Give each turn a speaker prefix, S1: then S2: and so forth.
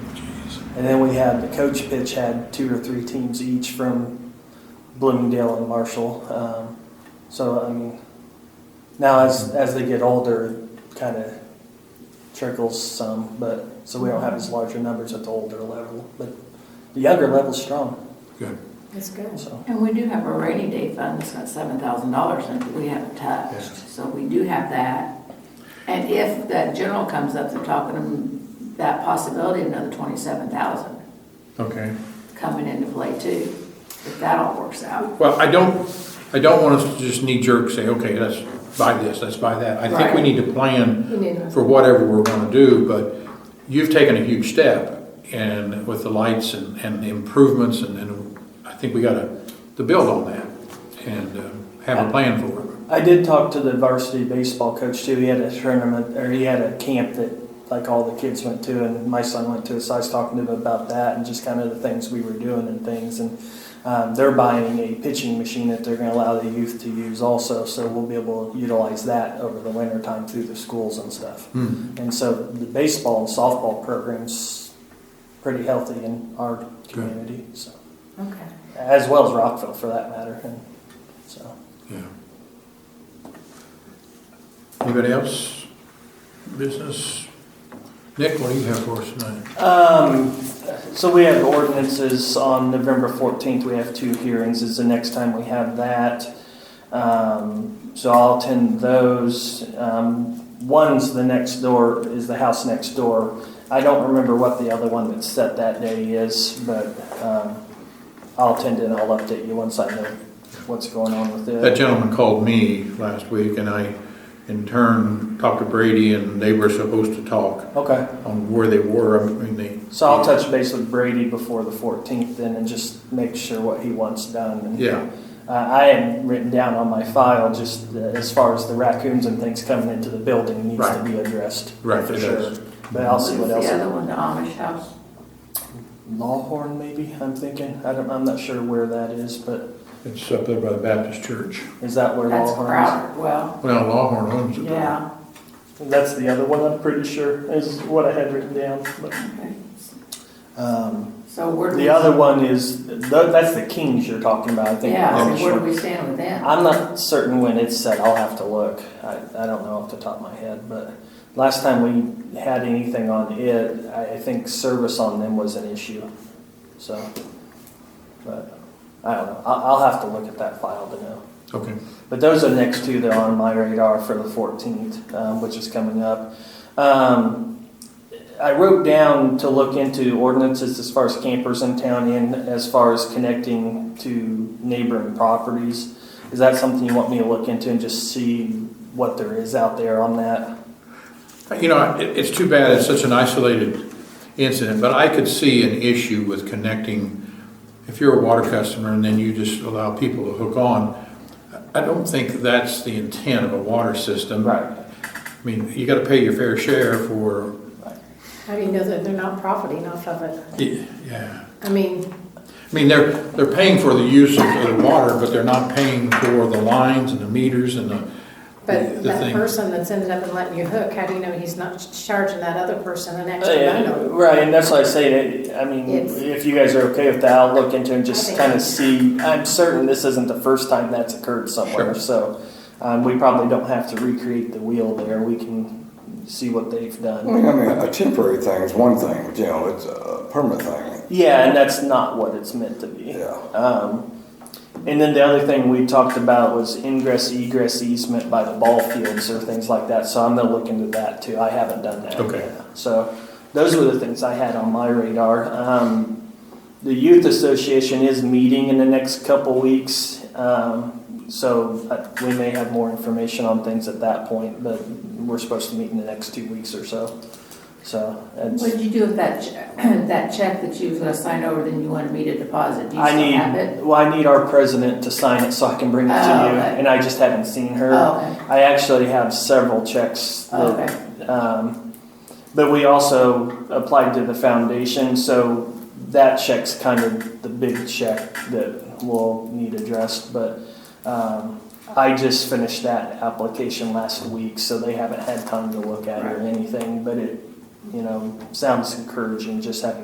S1: And then we had, the coach pitch had two or three teams each from Bloomingdale and Marshall. Um, so, I mean, now as, as they get older, kind of trickles some, but, so we don't have as large a numbers at the older level, but the younger level's strong,
S2: Good.
S3: That's good.
S1: so.
S3: And we do have a rainy day fund that's got seven thousand dollars in it that we haven't touched, so we do have that. And if that general comes up, they're talking about that possibility of another twenty-seven thousand
S2: Okay.
S3: coming into play too, if that all works out.
S2: Well, I don't, I don't want us to just knee jerk say, okay, let's buy this, let's buy that. I think we
S3: Right.
S2: need to plan
S3: You need to-
S2: for whatever we're gonna do, but you've taken a huge step and with the lights and, and the improvements and, and I think we gotta, to build on that and uh, have a plan for it.
S1: I did talk to the varsity baseball coach too. He had a tournament, or he had a camp that like all the kids went to, and my son went to. So I was talking to him about that and just kind of the things we were doing and things. And um, they're buying a pitching machine that they're going to allow the youth to use also. So we'll be able to utilize that over the winter time through the schools and stuff.
S2: Hmm.
S1: And so the baseball and softball programs pretty healthy in our community, so
S3: Okay.
S1: as well as Rockville for that matter. And so.
S2: Yeah. Anybody else? Business? Nick, what do you have for us tonight?
S1: Um, so we have ordinances on November fourteenth, we have two hearings, is the next time we have that. Um, so I'll attend those. Um, one's the next door, is the house next door. I don't remember what the other one that's set that day is, but, um, I'll attend and I'll update you once I know what's going on with
S2: That
S1: it.
S2: gentleman called me last week, and I, in turn, talked to Brady, and they were supposed to talk
S1: Okay,
S2: on where they were, I mean, they.
S1: so I'll touch base with Brady before the fourteenth then and just make sure what he wants done and
S2: Yeah,
S1: Uh, I had written down on my file just the, as far as the raccoons and things coming into the building needs to
S2: Right.
S1: be addressed.
S2: Right,
S1: for
S2: it
S1: sure.
S2: is.
S1: But I'll see what else.
S3: The other one, the Amish house,
S1: Lawhorn, maybe I'm thinking. I don't. I'm not sure where that is, but
S2: it's up there by the Baptist church.
S1: is that where
S3: that's
S1: Lawhorn
S3: crowded, well,
S2: Well, Lawhorn owns it.
S3: yeah,
S1: is? That's the other one. I'm pretty sure is what I had written down. But,
S3: okay.
S1: um,
S3: So where do we?
S1: the other one is th- that's the Kings you're talking about. I think.
S3: Yeah,
S1: I'm,
S3: so where do we stand with them?
S1: I'm not certain when it's set. I'll have to look. I, I don't know off the top of my head, but last time we had anything on it, I, I think service on them was an issue. So, but I don't know. I'll, I'll have to look at that file to know.
S2: Okay,
S1: But those are the next two that are on my radar for the 14th, um, which is coming up. Um, I wrote down to look into ordinances as far as campers in town and as far as connecting to neighboring properties. Is that something you want me to look into and just see what there is out there on that?
S2: you know, it, it's too bad it's such an isolated incident, but I could see an issue with connecting, if you're a water customer and then you just allow people to hook on, I don't think that's the intent of a water system. I mean, you gotta pay your fair share for,
S4: How do you know that they're not profiting off of it?
S2: yeah.
S4: I mean,
S2: I mean, they're, they're paying for the use of the water, but they're not paying for the lines and the meters and the, the
S4: but that
S2: thing.
S4: person that's ended up and letting you hook, how do you know he's not charging that other person an extra
S1: Yeah,
S4: amount?
S1: Right, and that's why I say, that I mean,
S4: It's-
S1: if you guys are okay with that, I'll look into and just
S4: I think-
S1: kind of see. I'm certain this isn't the first time that's occurred somewhere,
S2: Sure.
S1: so um, we probably don't have to recreate the wheel there. We can see what they've
S5: I
S1: done.
S5: mean, I mean, a temporary thing is one thing, but you know, it's a permanent thing.
S1: Yeah, and that's not what it's meant to be.
S5: Yeah.
S1: Um, and then the other thing we talked about was ingress egress easement by the ball fields or things like that. So I'm gonna look into that too. I haven't done that.
S2: Okay.
S1: yet. So those were the things I had on my radar. Um, the youth association is meeting in the next couple weeks, um, so uh, we may have more information on things at that point. But we're supposed to meet in the next two weeks or so. So it's,
S3: What did you do with that, che- that check that you was gonna sign over, then you wanted me to deposit? Do you
S1: I
S3: still have it?
S1: need, well, I need our president to sign it so I can bring it to you,
S3: Oh, okay.
S1: and I just haven't seen her.
S3: Oh, okay.
S1: I actually have several checks
S3: Oh,
S1: that,
S3: Okay,
S1: um, but we also applied to the foundation, so that check's kind of the big check that will need addressed, but, um, I just finished that application last week, so they haven't had time to look at it or anything, but it, you know, sounds encouraging just having